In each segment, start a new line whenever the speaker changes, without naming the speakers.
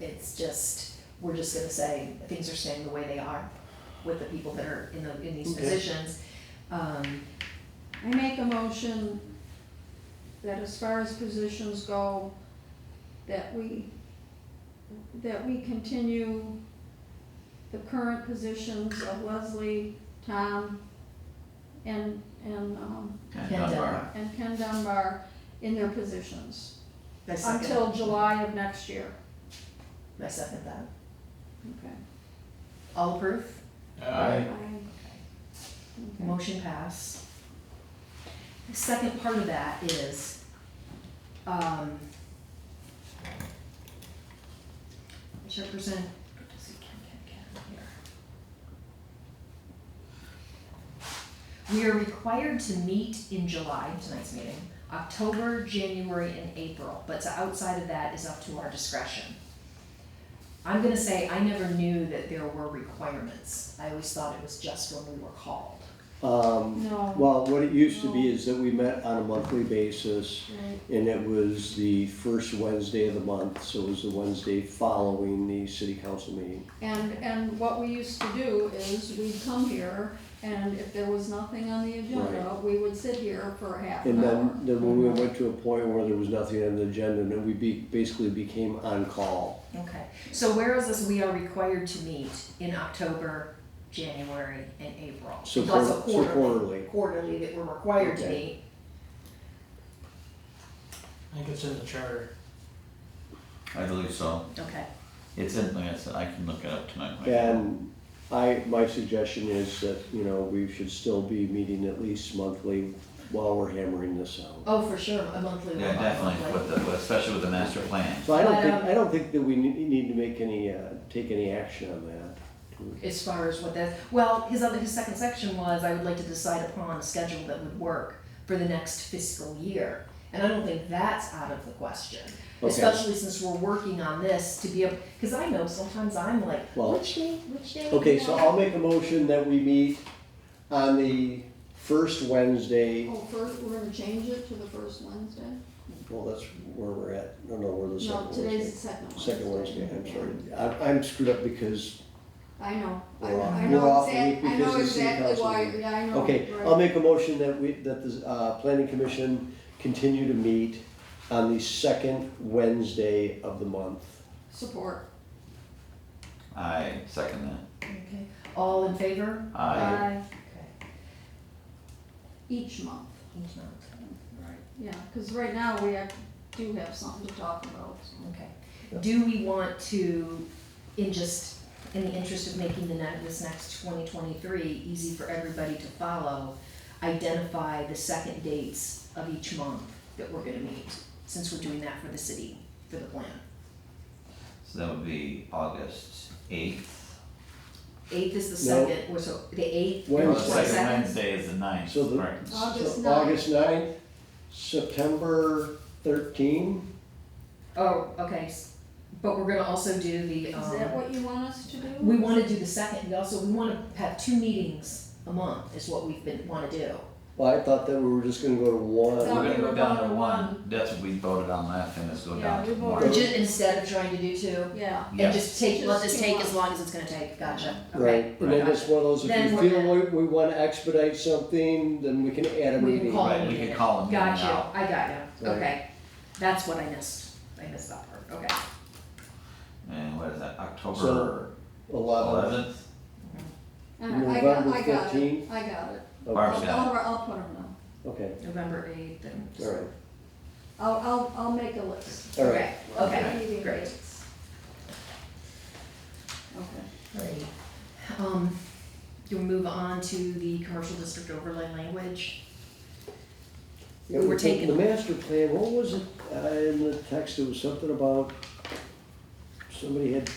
It's just, we're just gonna say, things are staying the way they are with the people that are in the, in these
Okay.
positions. Um,
I make a motion that as far as positions go, that we, that we continue the current positions of Leslie, Tom, and, and, um,
And
Ken
Dunbar.
Dunbar.
and Ken Dunbar in their positions
I second-
until July of next year.
I second that.
Okay.
All approve?
Aye.
Okay.
Motion pass. The second part of that is, um, which represent, let's see, can, can, can, here. We are required to meet in July, tonight's meeting, October, January, and April, but to outside of that is up to our discretion. I'm gonna say I never knew that there were requirements. I always thought it was just when we were called.
Um,
No,
well, what it used to be is that we met on a monthly basis
right,
and it was the first Wednesday of the month, so it was the Wednesday following the city council meeting.
and, and what we used to do is we'd come here and if there was nothing on the agenda, we would sit here for half
And
an hour.
then, then when we went to a point where there was nothing on the agenda, then we be, basically became on call.
Okay, so where is this, we are required to meet in October, January, and April?
So
Plus a
quarter- so quarterly.
Quarterly that we're required to meet.
Okay.
I think it's in the charter.
I believe so.
Okay,
It's in, like I said, I can look it up tonight. when I get home.
And I, my suggestion is that, you know, we should still be meeting at least monthly while we're hammering this out.
oh, for sure, a monthly.
Yeah, definitely, with the, with- especially with the master plan.
So I don't
But,
think,
um,
I don't think that we ne- need to make any, uh, take any action on that.
As far as what that, well, his other, his second section was, I would like to decide upon a schedule that would work for the next fiscal year. And I don't think that's out of the question,
Okay.
especially since we're working on this to be able, because I know sometimes I'm like,
Well-
which day, which day?
Okay, so I'll make a motion that we meet on the first Wednesday,
Oh, first, we're gonna change it to the first Wednesday?
well, that's where we're at, no, no, we're the
No,
second
today's the
Wednesday.
second Wednesday.
Second Wednesday, I'm sorry, I'm, I'm screwed up because,
I know, I,
We're off-
I
we're
know
off the week
exactly, I know
because of city
exactly
council
why,
meeting.
yeah, I know,
okay,
right.
I'll make a motion that we, that the, uh, planning commission continue to meet on the second Wednesday of the month.
Support,
I second that.
Okay, all in favor?
I,
Okay.
each month,
Each month. Right.
yeah, cause right now we have, do have something to talk about, so.
Okay. Do we want to, in just, in the interest of making the next, this next twenty twenty-three easy for everybody to follow, identify the second dates of each month that we're gonna meet, since we're doing that for the city, for the plan?
so that would be August eighth.
Eighth is the
No.
second, or so, the eighth, or
Wednesday.
the
Second
second?
Wednesday is the ninth,
So the-
right.
August
So
ninth.
August ninth, September thirteen,
Oh, okay, s- but we're gonna also do the, um.
Is that what you want us to do?
We wanna do the second, we also, we wanna have two meetings a month is what we've been, wanna do.
well, I thought that we were just gonna go to one.
That's
We're gonna go down to
Number
one,
one.
that's what we voted on last time, let's go
Yeah,
down to
we
one.
voted.
Or ju- instead of trying to do two,
Yeah,
and
Yes.
just take, let this
Just
take
two
as long as it's gonna take, gotcha, okay.
Right, and then it's one of those, if
Then
you
we're
feel we, we wanna expedite something, then we can add a
We can
meeting.
call
Right, we could call them
Got you,
now.
I got you,
Right.
okay, that's what I missed, I missed that part, okay.
And what is that, October
So- Eleven,
eleventh?
all right, I got,
November
I got it,
15th.
I got it.
okay,
Barb.
I'll,
Marcia.
I'll, I'll put them down,
okay,
November eighth and.
all right,
I'll, I'll, I'll make a list.
all right.
I'll
Okay,
give you the
great.
dates. Okay.
Alrighty. Um, do we move on to the commercial district overlay language?
Yeah,
We were
the-
taking-
The master plan, what was it, uh, in the text, it was something about, somebody had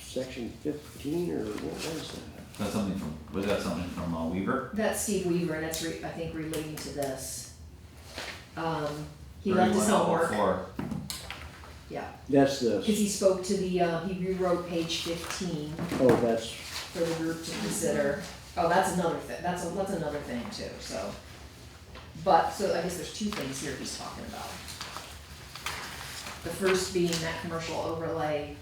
section fifteen, or what was that?
That's something from, was that something from uh, Weaver?
That's Steve Weaver, and that's re, I think relating to this. Um, he left his homework,
3104.
yeah,
That's
cause
this,
he spoke to the, uh, he rewrote page fifteen
oh, that's,
for the group to consider. Oh, that's another thing, that's, a- that's another thing too, so. But, so I guess there's two things here he's talking about. The first being that commercial overlay